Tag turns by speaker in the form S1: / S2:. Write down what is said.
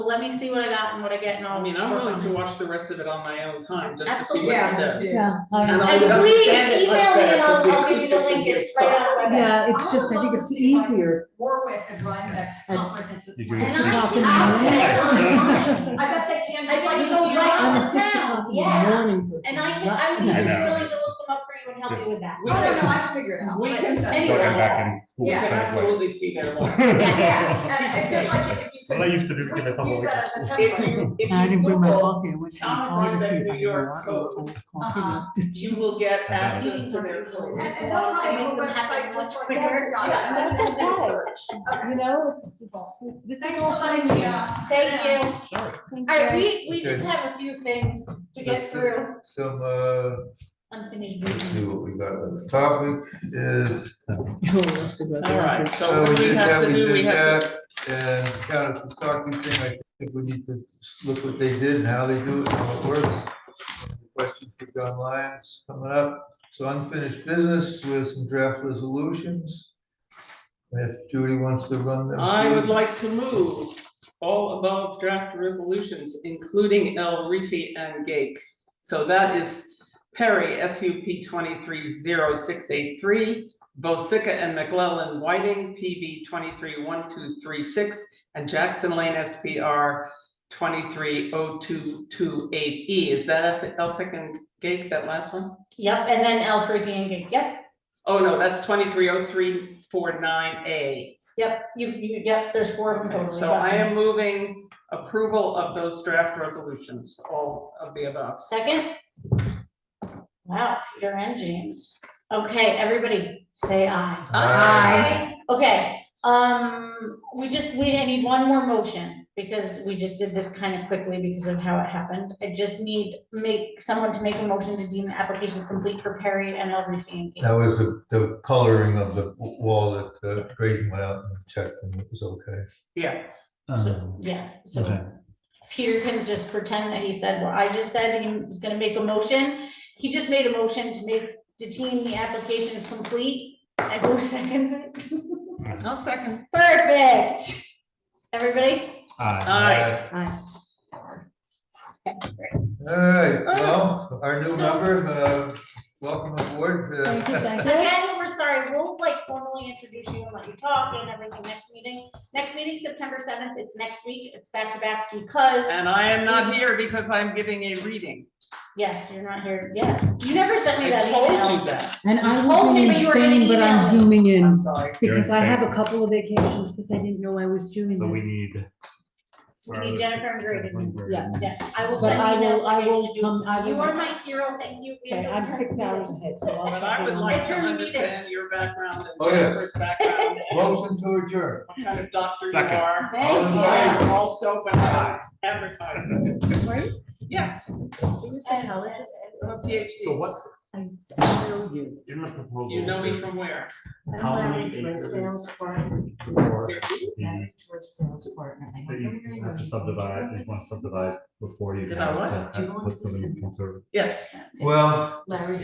S1: let me see what I got and what I get and I'll.
S2: I mean, I'm
S1: work
S2: willing
S1: on
S2: to
S1: it.
S2: watch the rest of it on my own time, just to see
S1: Absolutely.
S2: what it says.
S3: Yeah, me too.
S4: Yeah, I
S2: And
S4: know.
S2: I
S1: And
S2: would
S1: please
S2: understand it much
S1: email me
S2: better
S1: and I'll,
S2: 'cause the
S1: I'll give you the
S2: acoustics in
S1: link,
S2: here
S1: it's
S2: suck.
S1: right on
S4: yeah,
S1: WebEx.
S4: it's just, I think it's easier.
S3: Warwick and run that's comprehensive.
S5: You do
S3: plan.
S5: it.
S1: And I,
S4: Not in
S1: I'll
S4: the
S1: spend all the time.
S3: I bet they can,
S1: I bet
S3: just like
S1: you go
S3: you
S1: right
S3: know,
S1: on
S4: I'm a six
S1: town,
S4: o'clock in the
S1: yes.
S4: morning person.
S1: And I can, I would be
S5: I know.
S1: willing to look them up for you and help you with that.
S3: I don't know, I can figure it out.
S2: We
S3: but-
S2: can send
S5: Go
S2: you
S5: ahead back in school.
S2: You
S3: Yeah.
S2: can
S5: kind of like-
S2: absolutely see their law.
S3: Yeah, and it's just like if you could.
S5: Well, I used to do-
S3: we could
S5: give myself a
S3: Use
S5: week.
S3: that as a
S2: If
S3: template.
S2: you,
S4: I
S2: if you
S4: didn't bring my
S2: Google,
S4: coffee, I went to
S2: Town of
S4: all the
S2: Rhinebeck,
S4: food I
S2: New York
S4: got,
S2: code,
S4: old
S3: Uh-huh.
S4: coffee.
S2: you will get access to their
S3: And,
S2: code.
S3: and they'll have a
S1: Make them
S3: website
S1: happen much
S3: just like that's
S1: quicker.
S3: got
S1: Yeah,
S3: it.
S1: and that's okay.
S3: Okay.
S4: You know, it's, it's, this is
S3: Thanks for
S4: all
S3: letting me, uh.
S1: Thank you. All
S5: Sure.
S1: right, we, we
S6: Okay.
S1: just have a few things to get
S6: That's it.
S1: through,
S6: Some, uh,
S1: unfinished
S6: let's see
S1: business.
S6: what we got. The topic is,
S4: Oh,
S2: All right, so
S6: so we
S2: what we
S6: did
S2: have
S6: that,
S2: to
S6: Oh, we
S2: do, we
S6: did
S2: have, to-
S6: that, and kind of the stocking thing, I think we need to look what they did and how they do it, and how it works. Question for John Lyons coming up. So unfinished business with some draft resolutions. If Judy wants to run them.
S2: I would
S6: through.
S2: like to move all above draft resolutions, including El Rifi and Gake. So that is Perry, SUP twenty-three zero six eight three, Bosica and McLellan Whiting, PB twenty-three one two three six, and Jackson Lane SPR twenty-three oh two two eight E. Is that Elphick and Gake, that last one?
S1: Yep, and then L for gang, yep,
S2: Oh, no, that's twenty-three oh three four nine A.
S1: yep, you, you, yep, there's four of them
S2: Okay,
S1: totally.
S2: so
S1: yep.
S2: I am moving approval of those draft resolutions, all of the above.
S1: Second? Wow, Peter and James. Okay, everybody, say aye.
S6: Aye.
S1: Okay, um, we just, we, I need one more motion, because we just did this kind of quickly because of how it happened. I just need make, someone to make a motion to deem the applications complete for Perry and everything.
S6: That was the, the coloring of the wall that uh, Graydon went out and checked and it was okay.
S2: Yeah,
S1: So, yeah, so
S5: Okay.
S1: Peter can just pretend that he said what I just said, he was gonna make a motion. He just made a motion to make, to deem the applications complete, and who seconds it?
S2: I'll second.
S1: Perfect. Everybody?
S5: Aye.
S2: Aye.
S6: All right, well, our new
S1: So-
S6: member, uh, welcome aboard. uh,
S4: I think I-
S1: Again, we're sorry, we'll like formally introduce you and let you talk and everything next meeting. Next meeting, September seventh, it's next week, it's back to back because,
S2: And I am not here because I'm giving a reading.
S1: yes, you're not here, yes. You never sent me
S2: I
S1: that
S2: told
S1: email.
S2: you that.
S4: And I
S1: told
S4: will
S1: me,
S4: be in
S1: but you were gonna
S4: Spain, but I'm
S1: email.
S4: zooming
S2: I'm
S4: in
S2: sorry.
S5: You're in
S4: because I have a
S5: Spain.
S4: couple of vacations because I didn't know I was doing
S5: So we
S4: this.
S5: need.
S1: Mm-hmm. We need Jennifer and Graydon.
S4: Yeah.
S1: Yeah, I will
S4: But
S1: send
S4: I
S1: emails.
S4: will, I
S1: to you.
S4: will come, I will.
S1: You are
S4: make-
S1: my hero, thank you.
S4: Okay, I'm six hours ahead, so I'll
S2: But I
S4: check
S2: would
S4: in on
S2: like
S4: that.
S2: to understand your background
S6: Oh,
S2: and
S6: yeah.
S2: Jennifer's background, and
S6: Motion to adjourn.
S2: what kind of doctor you
S5: Second.
S2: are.
S1: Thank
S6: you.
S2: And Also, when I advertise, yes, I'm a
S5: So
S2: PhD.
S5: what, in the proposal.
S2: You know me
S5: is
S2: from where?
S5: How many acres? for the- That you have to subdivide, you want to subdivide before you.
S2: Did I
S5: have
S2: what?
S5: to have- Put something in conserv-
S2: Yes.
S6: Well,
S3: Larry.